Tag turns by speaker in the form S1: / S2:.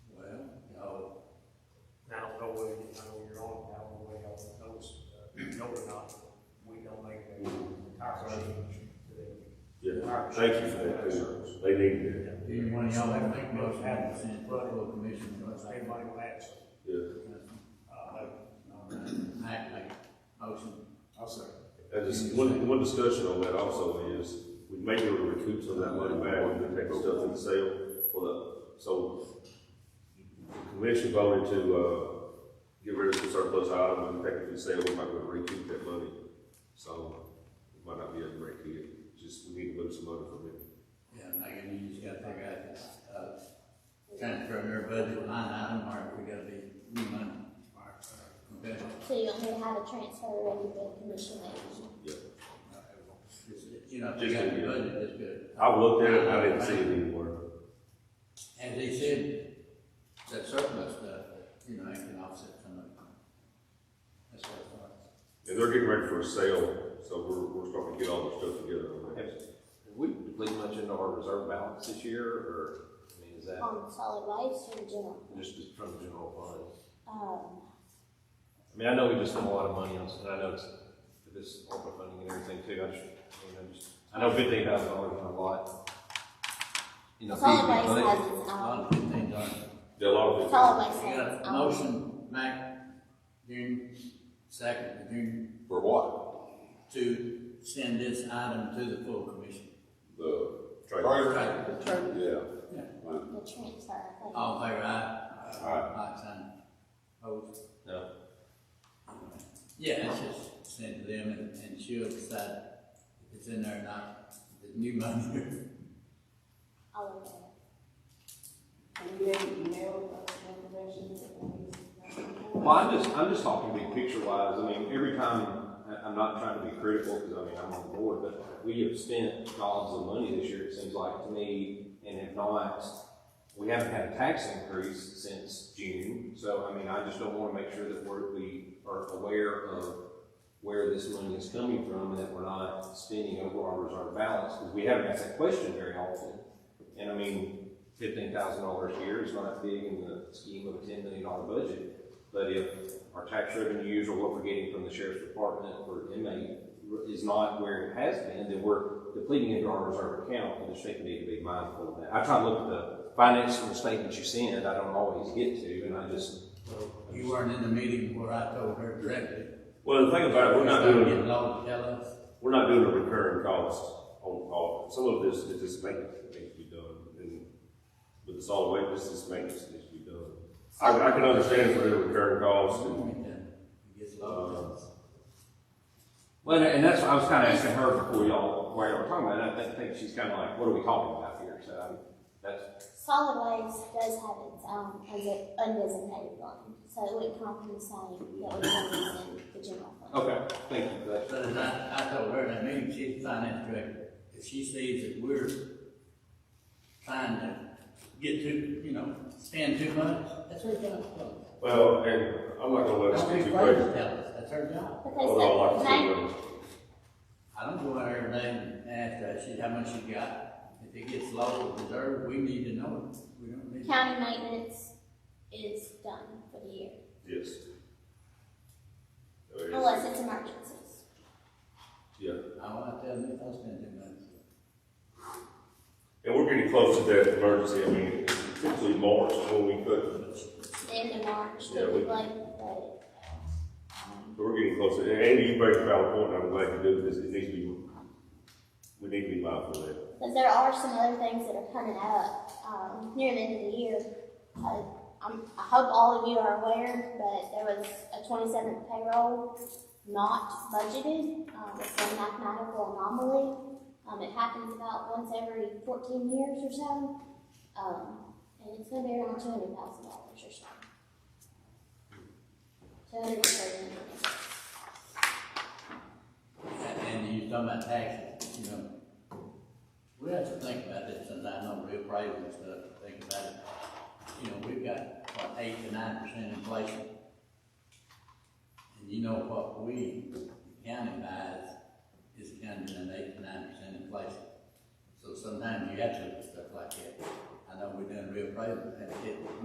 S1: Thank you for that, too. They need that.
S2: Anyone of y'all have make most happy since Buffalo Commission, but everybody will ask.
S1: Yeah.
S2: I make motion.
S3: I'll say.
S1: And just one, one discussion on that also is, we may be able to recoup some of that money back when we take the stuff in the sale for the, so the commission voted to, uh, get rid of some surplus items and take it to the sale, we might be able to recoup that money. So, we might not be able to break it, just, we need to move some money from it.
S2: Yeah, Megan, you just gotta figure out this, uh, transfer their budget line item, or we gotta be new money. Okay?
S4: So you don't need to have a transfer or anything, commission lady?
S2: Just, You know, if they got the budget, that's good.
S1: I looked at it, I didn't see it anywhere.
S2: As they said, that surplus stuff, you know, it can offset some of it. That's what I thought.
S1: And they're getting ready for a sale, so we're, we're starting to get all the stuff together on that.
S5: Have we depleted much into our reserve balance this year, or, I mean, is that
S4: On solid waste or general?
S5: just from the general fund?
S4: Um,
S5: I mean, I know we just spent a lot of money on, and I know it's, for this ARPA funding and everything too, I just, you know, just, I know fifteen thousand dollars is a lot. You know,
S4: solid
S5: big,
S4: waste
S5: big money.
S4: has its
S2: A
S4: own,
S2: lot of good things on it.
S1: Yeah, a lot of people.
S4: solid waste
S2: We
S4: has um,
S2: got
S4: its
S2: a
S4: own.
S2: motion, Mac, June second, June,
S5: For what?
S2: to send this item to the full commission.
S6: The
S1: Trade.
S6: trailer,
S2: All
S6: yeah.
S4: The transfer, I think.
S2: in favor, aye?
S6: Aye.
S2: Like sign. Opposed?
S5: No.
S2: Yeah, it's just send to them and, and she'll decide if it's in there or not, the new money.
S4: All of them.
S5: Well, I'm just, I'm just talking big picture wise, I mean, every time, I, I'm not trying to be critical, because I mean, I'm on the board, but we have spent gobs of money this year, it seems like to me, and if not, we haven't had a tax increase since June, so I mean, I just don't wanna make sure that we're, we are aware of where this money is coming from, and that we're not spending over our reserve balance, because we haven't asked that question very often. And I mean, fifteen thousand dollars a year is not big in the scheme of a ten million dollar budget, but if our tax revenues or what we're getting from the sheriff's department or inmate is not where it has been, then we're depleting into our reserve account, and the state need to be mindful of that. I try to look at the financial statement you send, I don't always get to, and I just,
S2: You weren't in the meeting where I told her directly.
S1: Well, the thing about it, we're not
S2: It's
S1: doing,
S2: getting low to tell us.
S1: we're not doing a recurring cost on all, some of this is just maintenance that needs to be done, and with the solid waste, this is maintenance that needs to be done. I, I can understand for the recurring cost, and,
S2: It gets low to us.
S5: well, and that's, I was kinda asking her before y'all, while y'all were talking about it, I think she's kinda like, what are we talking about here? So, I mean, that's,
S4: Solid waste does have its own as an undesignated fund, so it wouldn't come from the same that would come in the general fund.
S5: okay, thank you for that.
S2: But as I, I told her, in that meeting, she's the finance director, if she sees that we're trying to get too, you know, spend too much, that's her job.
S1: well, and I'm not gonna let us
S2: Don't be
S1: get too
S2: afraid to
S1: crazy.
S2: tell us, that's her job.
S1: Although I
S4: Because
S1: like
S4: the
S1: to
S4: main,
S1: see
S2: I don't go out there every day and ask her, she, how much she got, if it gets low or reserved, we need to know it, we don't need.
S4: county maintenance is done for the year,
S1: them. yes. There it is.
S4: unless it's emergencies.
S1: Yeah,
S2: I want to tell them if I spend too much.
S1: and we're getting close to that emergency, I mean, typically March, is when we cut
S4: the end of March,
S1: Yeah, we-
S4: typically, but, um,
S1: But we're getting closer, and Andy, you bring a valid point, I'm glad you do, because it needs to be, we need to be mindful of that.
S4: but there are some other things that are coming up, um, near the end of the year. Uh, I'm, I hope all of you are aware, but there was a twenty-seventh payroll not budgeted, um, it's a mathematical anomaly. Um, it happens about once every fourteen years or so, um, and it's gonna be around two hundred thousand dollars or so. Two hundred and thirty.
S2: And you was talking about taxes, you know. We have to think about this, since I know real prices and stuff, think about it. You know, we've got, what, eight to nine percent inflation. And you know what we, the county buys, is counted in eight to nine percent inflation. So sometimes you have to look at stuff like that. I know we're doing real prices, and it